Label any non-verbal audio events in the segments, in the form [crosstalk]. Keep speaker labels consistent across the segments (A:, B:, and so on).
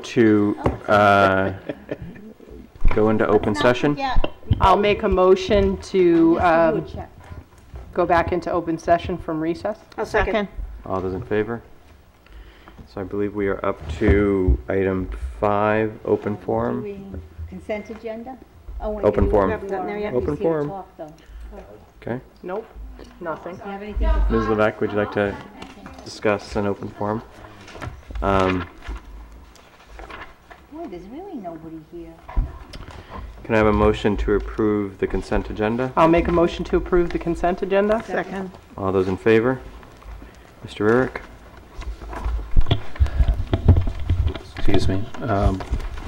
A: to uh, go into open session?
B: Yeah,
C: I'll make a motion to um,
B: check.
C: go back into open session from recess.
D: A second.
A: All those in favor? So I believe we are up to item five, open forum.
B: we consent agenda? Oh, wait,
A: Open
B: we
A: forum.
B: haven't gotten there yet.
A: Open
B: We see the
A: forum.
B: talk, though. Do
A: Okay.
C: Nope, nothing.
B: you have anything to-
A: Ms. Levesque, would you like to discuss an open forum? Um,
B: Boy, there's really nobody here.
A: Can I have a motion to approve the consent agenda?
C: I'll make a motion to approve the consent agenda.
D: Second.
A: All those in favor? Mr. Eric?
E: excuse me, um,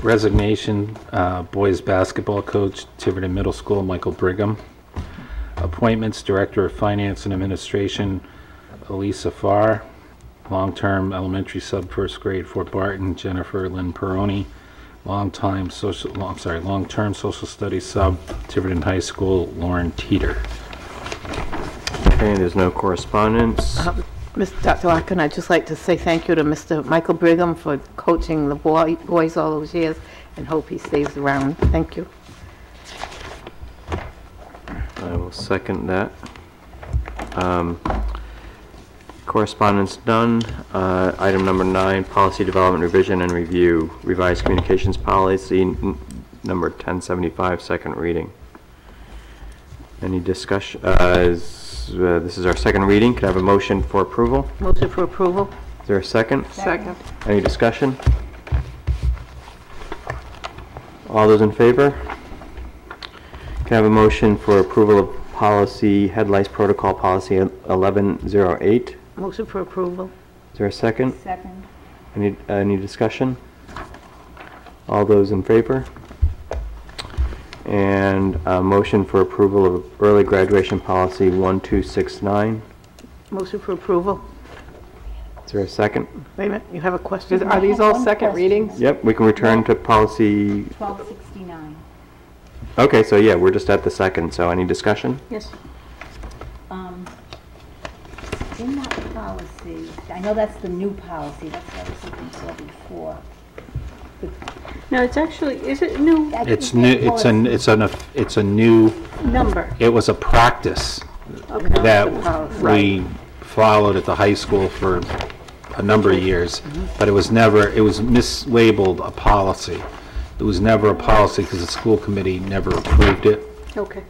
E: resignation, uh, boys basketball coach, Tiverton Middle School, Michael Brigham. Appointments, Director of Finance and Administration, Elisa Farr. Long-term elementary sub first grade Fort Barton, Jennifer Lynn Peroni. Long-time social, long- I'm sorry, long-term social studies sub, Tiverton High School, Lauren Teeter.
A: Okay, there's no correspondence.
D: Dr. Larkin, I'd just like to say thank you to Mr. Michael Brigham for coaching the boy- boys all those years and hope he stays around. Thank you.
A: I will second that. Um, Correspondence done. Uh, Item number nine, policy development revision and review, revised communications policy n- number 1075, second reading. Any discussion, uh, is, uh, this is our second reading, could I have a motion for approval?
D: Motion for approval?
A: Is there a second?
C: Second.
A: Any discussion? All those in favor? Can I have a motion for approval of policy, head lice protocol policy 1108?
D: Motion for approval?
A: Is there a second?
B: Second.
A: Any, uh, any discussion? All those in favor? And a motion for approval of early graduation policy 1269?
D: Motion for approval?
A: Is there a second?
D: Wait a minute, you have a
C: Is-
D: question?
C: Are these all second readings?
A: Yep, we can return to policy,
B: 1269.
A: okay, so yeah, we're just at the second, so any discussion?
D: Yes.
B: Um, In that policy, I know that's the new policy, that's what I was looking for before.
D: No, it's actually, is it new
B: I
E: It's
B: think
E: new,
B: that
E: it's an,
B: policy-
E: it's an, it's a new,
D: number?
E: it was a practice that we followed at the high school for a number of years,
F: Mm-hmm.
E: but it was never, it was mislabeled a policy. It was never a policy because the school committee never approved it.
F: Okay.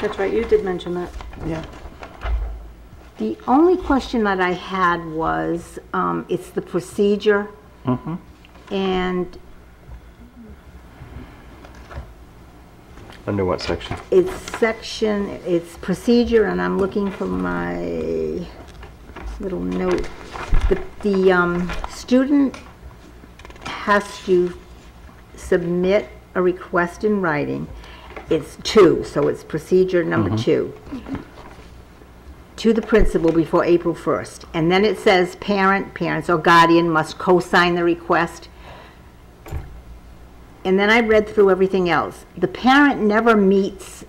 F: That's right, you did mention that.
D: Yeah.
F: The only question that I had was, um, it's the procedure. And
A: Under what section?
F: it's section, it's procedure, and I'm looking for my little note. The, the, um, student has to submit a request in writing. It's two, so it's procedure number two. To the principal before April 1st. And then it says parent, parents or guardian must co-sign the request. And then I read through everything else. The parent never meets,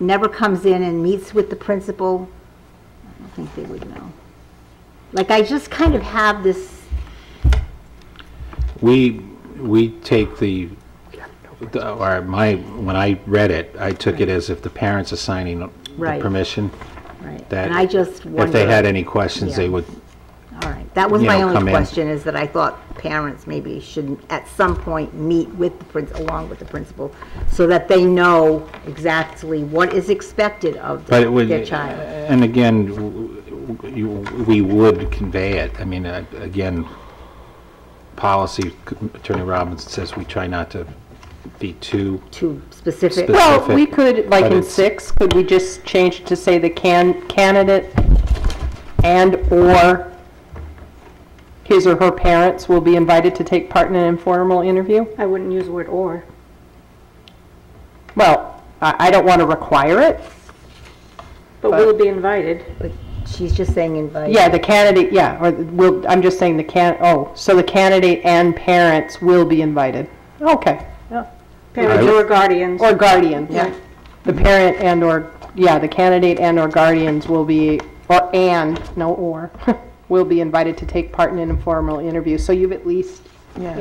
F: never comes in and meets with the principal. I don't think they would know. Like, I just kind of have this,
E: We, we take the, the- or my, when I read it, I took it as if the parents are signing the
F: Right.
E: permission.
F: right,
E: That
F: and I just wonder.
E: If they had any questions, they
F: Yeah.
E: would,
F: All right, that was
E: you
F: my
E: know, come
F: only
E: in.
F: question, is that I thought parents maybe should, at some point, meet with the principal, along with the principal, so that they know exactly what is expected of
E: but it would.
F: their child.
E: And again, w- w- you- we would convey it. I mean, uh, again, policy, Attorney Robinson says we try not to be too
F: Too specific.
E: Spec-
C: Well, we
E: Specific,
C: could, like
E: but
C: in
E: it's-
C: six, could we just change it to say the can, candidate and/or his or her parents will be invited to take part in an informal interview?
F: I wouldn't use the word or.
C: Well, I, I don't want to require it.
F: But
C: will
F: it be invited? She's just saying invited.
C: Yeah, the candidate, yeah, or will, I'm just saying the can, oh, so the candidate and parents will be invited. Okay,
E: I
F: Parents
E: would-
F: or guardians.
C: or guardian. Yeah. The parent and or, yeah, the candidate and or guardians will be, or [laughs] and, no or, will be invited to take part in an informal interview. So you've at least